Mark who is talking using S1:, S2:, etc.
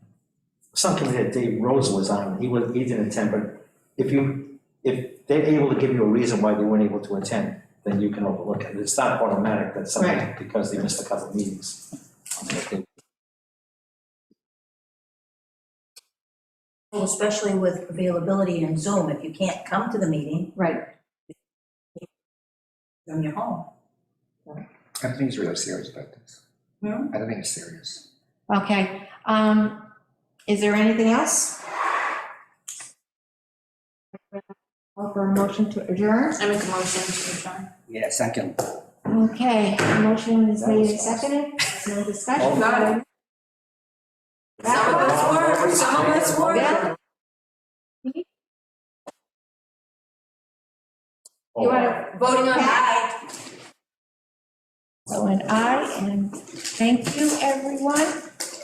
S1: some committee that Dave Rosa was on, he was, he didn't attend, but if you, if they're able to give you a reason why they weren't able to attend, then you can overlook it. It's not automatic that someone,
S2: Right.
S1: because they missed a couple of meetings. Okay.
S3: Well, Especially with availability in Zoom, if you can't come to the meeting
S2: Right,
S3: from your home.
S4: I don't think he's really serious about this.
S3: Hmm?
S4: I don't think he's serious.
S2: okay. Um, is there anything else? Call for a motion to adjourn?
S5: I make a motion to adjourn.
S4: Yeah, second.
S2: Okay, motion is made and seconded, There's no discussion.
S5: Got it. Some of us work, some of us work.
S2: Yeah.
S5: You are voting on aye.
S2: So an aye, and thank you, everyone.